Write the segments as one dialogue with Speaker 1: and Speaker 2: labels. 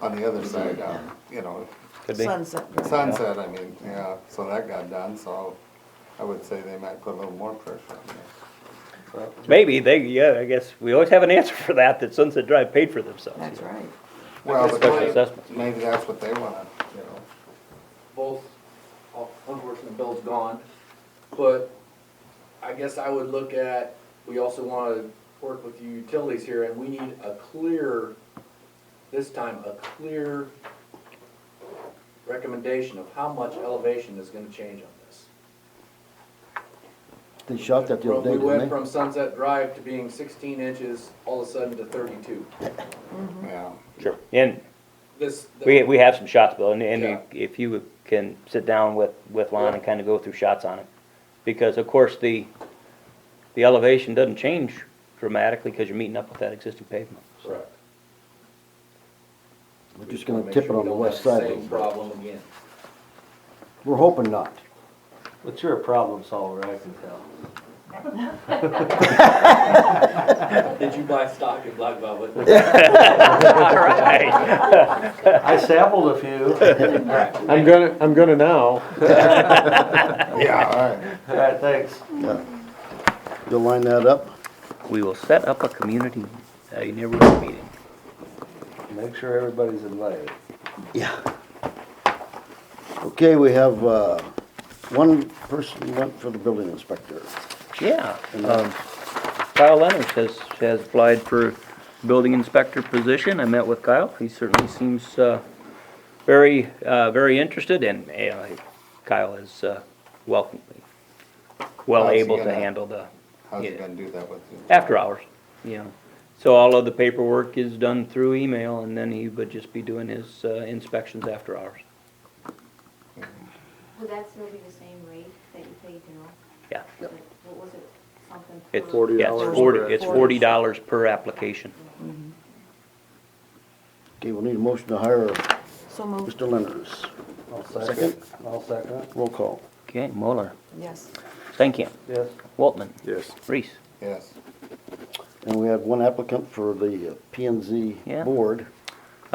Speaker 1: on the other side, uh, you know,
Speaker 2: Could be.
Speaker 3: Sunset Drive.
Speaker 1: sunset, I mean, yeah, so that got done, so I would say they might put a little more pressure on that. But-
Speaker 2: Maybe, they, yeah, I guess, we always have an answer for that, that Sunset Drive paid for themselves.
Speaker 3: That's right.
Speaker 1: Well, but
Speaker 2: Special
Speaker 1: they-
Speaker 2: assessment.
Speaker 1: maybe that's what they wanna, you know.
Speaker 4: both, uh, unfortunately, Bill's gone, but I guess I would look at, we also wanna work with the utilities here, and we need a clear, this time, a clear recommendation of how much elevation is gonna change on this.
Speaker 5: They shot that the other
Speaker 4: We
Speaker 5: day,
Speaker 4: went
Speaker 5: didn't they?
Speaker 4: from Sunset Drive to being sixteen inches, all of a sudden to thirty-two.
Speaker 1: Yeah,
Speaker 2: Sure. And
Speaker 4: This.
Speaker 2: we, we have some shots, Bill, and, and
Speaker 4: Yeah.
Speaker 2: if you can sit down with, with Lon and kinda go through shots on it. Because of course, the, the elevation doesn't change dramatically, cause you're meeting up with that existing pavement.
Speaker 4: Correct.
Speaker 5: We're just gonna tip it on the west
Speaker 4: Make
Speaker 5: side.
Speaker 4: sure
Speaker 5: a
Speaker 4: we don't have the Same
Speaker 5: little bit.
Speaker 4: problem again.
Speaker 5: We're hoping not.
Speaker 6: But you're a problem solver, I can tell.
Speaker 4: Did you buy stock in Black Velvet?
Speaker 2: Alright,
Speaker 6: I sampled a few.
Speaker 7: I'm gonna, I'm gonna now.
Speaker 1: yeah, all right.
Speaker 6: All right, thanks.
Speaker 5: You'll line that up?
Speaker 2: we will set up a community, a neighborhood meeting.
Speaker 6: Make sure everybody's invited.
Speaker 5: Yeah. Okay, we have, uh, one person went for the building inspector.
Speaker 2: Yeah, um, Kyle Leonard has, has applied for building inspector position. I met with Kyle. He certainly seems, uh, very, uh, very interested and, uh, Kyle is, uh, welcome, well
Speaker 1: How's he
Speaker 2: able to
Speaker 1: gonna-
Speaker 2: handle the,
Speaker 1: How's you
Speaker 2: Yeah.
Speaker 1: gonna do that with you?
Speaker 2: after hours, you know. So all of the paperwork is done through email and then he would just be doing his, uh, inspections after hours.
Speaker 8: Would that still be the same rate that you paid now?
Speaker 2: Yeah.
Speaker 5: Yep.
Speaker 8: Like, What was it, something?
Speaker 2: It's,
Speaker 8: per-
Speaker 2: yeah, it's forty, it's forty dollars per application.
Speaker 5: Okay, we'll need a motion to hire
Speaker 3: So moved,
Speaker 5: Mr. Lenders.
Speaker 6: I'll second. I'll second.
Speaker 5: Roll call.
Speaker 2: Okay, Muller,
Speaker 3: yes.
Speaker 2: Stankin,
Speaker 6: Yes.
Speaker 2: Waltman,
Speaker 7: Yes.
Speaker 2: Reese.
Speaker 1: Yes,
Speaker 5: And we had one applicant for the uh, P and Z
Speaker 2: Yeah.
Speaker 5: board.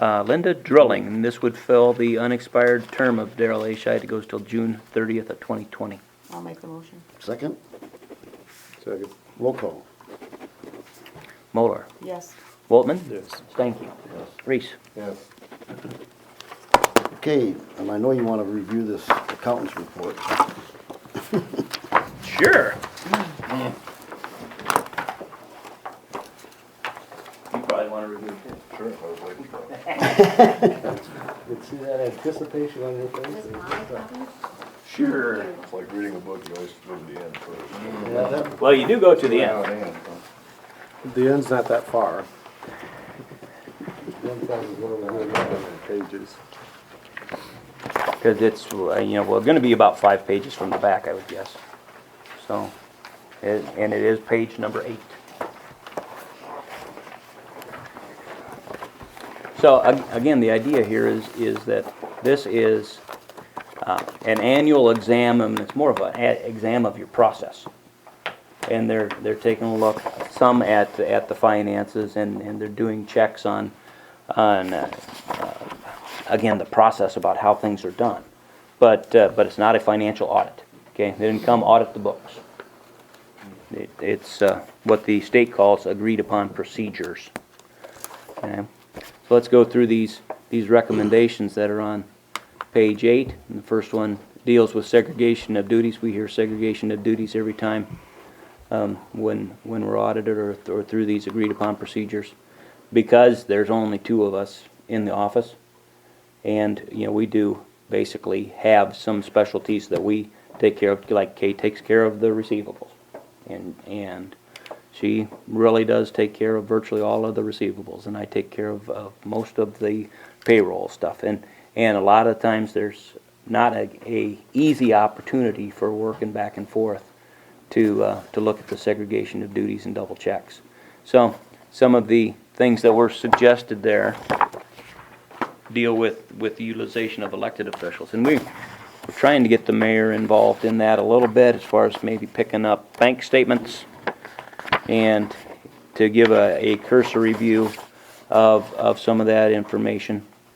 Speaker 2: Uh, Linda Drilling, and this would fill the unexpired term of Daryl A. Scheid. It goes till June thirtieth of twenty twenty.
Speaker 3: I'll make the motion.
Speaker 5: Second,
Speaker 7: Second.
Speaker 5: roll call.
Speaker 2: Moller,
Speaker 3: Yes.
Speaker 2: Waltman?
Speaker 7: Yes.
Speaker 2: Stanky? Reese?
Speaker 1: yes,
Speaker 5: Okay, and I know you wanna review this accountant's report.
Speaker 2: Sure. You probably wanna review
Speaker 1: sure, I was waiting for it.
Speaker 6: Did see that anticipation on your face?
Speaker 8: Just my copy?
Speaker 2: Sure.
Speaker 7: It's like reading a book, you always go to the end first.
Speaker 6: Yeah, that,
Speaker 2: Well, you do go to the end.
Speaker 7: The end's not that far.
Speaker 6: one thousand one of
Speaker 7: There's not that many pages.
Speaker 2: Cause it's, uh, you know, well, gonna be about five pages from the back, I would guess. So, it- and it is page number eight. So, ag- again, the idea here is, is that this is uh, an annual exam, and it's more of an a- exam of your process. And they're, they're taking a look, some at, at the finances, and, and they're doing checks on, on, uh, again, the process about how things are done. But, uh, but it's not a financial audit, okay? They didn't come audit the books. It- It's uh, what the state calls agreed-upon procedures. Okay? So let's go through these, these recommendations that are on page eight. And the first one deals with segregation of duties. We hear segregation of duties every time um, when, when we're audited or, or through these agreed-upon procedures. Because there's only two of us in the office, and, you know, we do basically have some specialties that we take care of, like Kay takes care of the receivables. And, and she really does take care of virtually all of the receivables, and I take care of, of most of the payroll stuff. And, and a lot of times, there's not a, a easy opportunity for working back and forth to, uh, to look at the segregation of duties and double checks. So, some of the things that were suggested there deal with, with the utilization of elected officials. And we, we're trying to get the mayor involved in that a little bit as far as maybe picking up bank statements and to give a, a cursory view of, of some of that information.